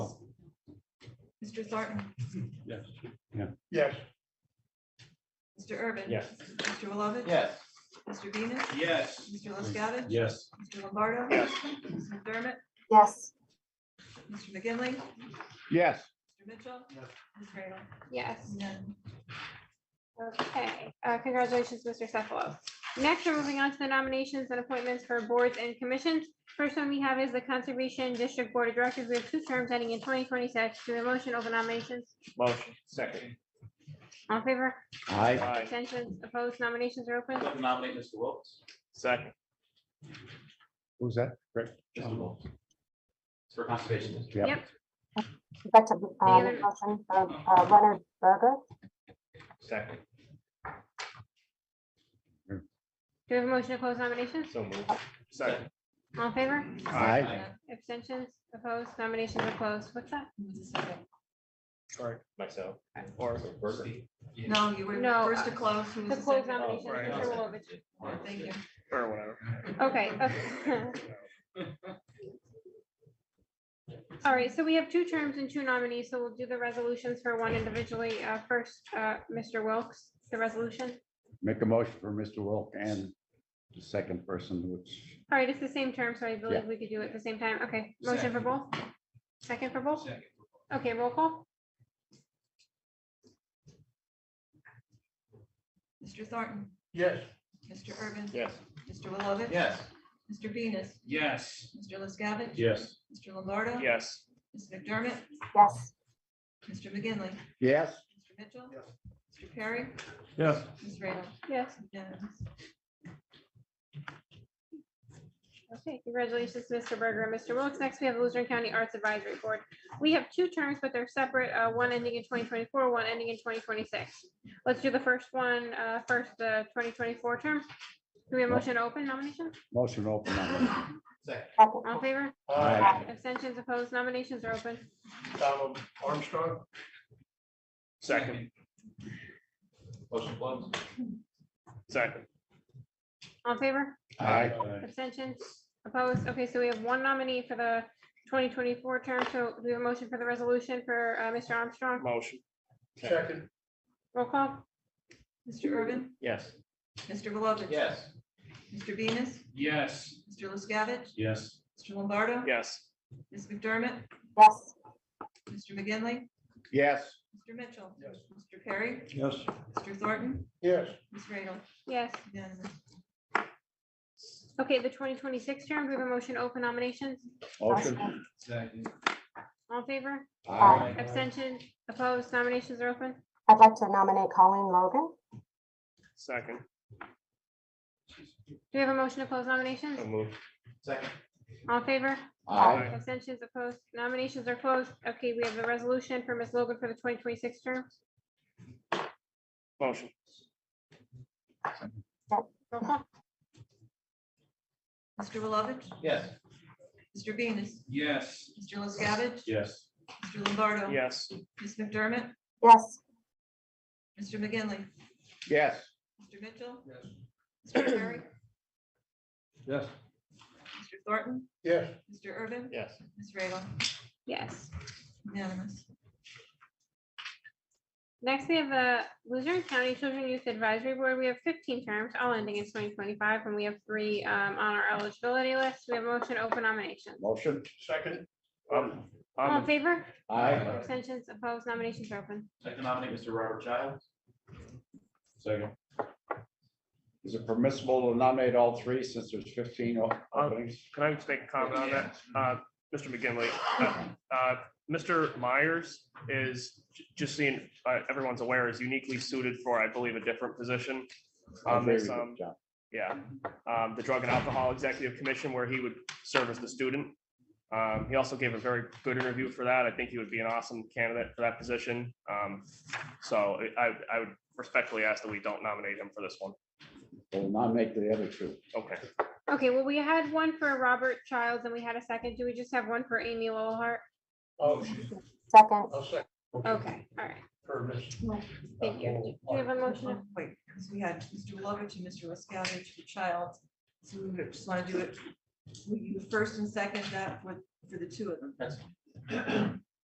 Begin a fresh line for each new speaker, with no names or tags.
Mr. Thornton?
Yes.
Yes.
Mr. Urban?
Yes.
Mr. Lovett?
Yes.
Mr. Venus?
Yes.
Mr. LaScavitch?
Yes.
Mr. Lombardo?
Yes.
Ms. McDermott?
yes,
Mr. McGinley,
Yes.
Mr. Mitchell?
Yes.
Ms. Graham?
yes. Okay, uh, congratulations, Mr. Cephalos. Next, we're moving on to the nominations and appointments for boards and commissions. First one we have is the Conservation District Board of Directors. We have two terms ending in twenty twenty-six. Do we have a motion over nominations?
Motion, second.
All in favor?
Aye.
Aye.
Abstentions? Opposed? Nominations are open.
I'd like to nominate Mr. Wilks.
Second.
Who's that?
Mr. Wilks. It's For conservation. district.
Yep.
Yep.
That's a, um,
other-
motion for, uh, Leonard Berger.
Second.
Do we have a motion to close nominations?
So moved. Second.
All in favor?
Aye.
Abstentions? Opposed? Nominations are closed. What's that?
Who was the second?
Or myself. Or. Berger.
No, you were
No,
first to
uh,
close. Who was
To
the
close
second?
nominations.
right.
Mr. Wilovich.
Thank you.
Or whatever.
Okay. okay. All right, so we have two terms and two nominees, so we'll do the resolutions for one individually. Uh, First, uh, Mr. Wilks, the resolution.
Make a motion for Mr. Wilk and the second person, which,
All right, it's the same term, so I believe we could do it at the same time. Okay, motion for both? Second for both? Okay, roll call?
Mr. Thornton?
Yes.
Mr. Urban?
Yes.
Mr. Wilovich?
Yes.
Mr. Venus?
Yes.
Mr. LaScavitch?
yes.
Mr. Lombardo?
Yes.
Ms. McDermott?
Yes,
Mr. McGinley,
Yes.
Mr. Mitchell?
Yes.
Mr. Perry?
Yes.
Ms. Radel?
Yes.
Unanimous.
Okay, congratulations, Mr. Berger and Mr. Wilks. Next, we have Luzerne County Arts Advisory Board. We have two terms, but they're separate, uh, one ending in twenty twenty-four, one ending in twenty twenty-six. Let's do the first one, uh, first, the twenty twenty-four term. Do we have a motion to open nomination?
Motion open. on that.
Second.
second,
All in favor?
Aye.
Abstentions opposed, nominations are open.
Donald Armstrong. Second.
Motion closed.
Second.
All in favor?
Aye.
Abstentions opposed. Okay, so we have one nominee for the twenty twenty-four term. So do we have a motion for the resolution for, uh, Mr. Armstrong?
Motion.
Second.
Roll call?
Mr. Urban?
Yes.
Mr. Belovitch?
Yes.
Mr. Venus?
Yes.
Mr. LaScavitch?
Yes.
Mr. Lombardo?
Yes.
Ms. McDermott?
yes,
Mr. McGinley,
Yes.
Mr. Mitchell?
Yes.
Mr. Perry?
Yes.
Mr. Thornton?
Yes.
Ms. Radel?
Yes.
Unanimous.
Okay, the twenty twenty-six term, do we have a motion to open nominations?
Motion.
Motion.
Second.
All in favor?
Aye.
Abstention, opposed, nominations are open.
I'd like to nominate Colleen Logan.
Second.
Do we have a motion to close nominations?
So moved.
Second.
All in favor?
Aye.
Abstentions opposed, nominations are closed. Okay, we have the resolution for Ms. Logan for the twenty twenty-six term.
Motion.
Roll call?
Mr. Belovitch?
Yes.
Mr. Venus?
Yes.
Mr. LaScavitch?
Yes.
Mr. Lombardo?
Yes.
Ms. McDermott?
Yes,
Mr. McGinley,
Yes.
Mr. Mitchell?
Yes.
Mr. Perry?
Yes.
Mr. Thornton?
Yes.
Mr. Urban?
Yes.
Ms. Radel?
Yes.
Unanimous.
Next, we have the Luzerne County Children Youth Advisory Board. We have fifteen terms, all ending in twenty twenty-five, and we have three um, on our eligibility list. We have a motion to open nominations.
Motion.
Second.
Um,
All
I'm,
in favor?
Aye.
Abstentions opposed, nominations are open.
I'd like to nominate Mr. Robert Childs.
Second. Is it permissible to nominate all three since there's fifteen o- openings?
can I just make a comment on that? Uh, Mr. McGinley, uh, uh, Mr. Myers is, j- just seeing, uh, everyone's aware, is uniquely suited for, I believe, a different position.
I
On
agree
this,
with you,
um,
John.
yeah, um, the Drug and Alcohol Executive Commission, where he would serve as the student. Um, he also gave a very good interview for that. I think he would be an awesome candidate for that position. Um, so I, I would respectfully ask that we don't nominate him for this one.
We'll nominate the other two.
Okay,
Okay, well, we had one for Robert Childs and we had a second. Do we just have one for Amy Lowellhart?
Oh,
second,
I'll second. uh,
Okay, all right.
Permit.
Thank you. Do we have a motion?
Wait, because we had Mr. Lovich and Mr. LaScavitch for Childs. So we would just want to do it, will you first and second that for, for the two of them?
That's.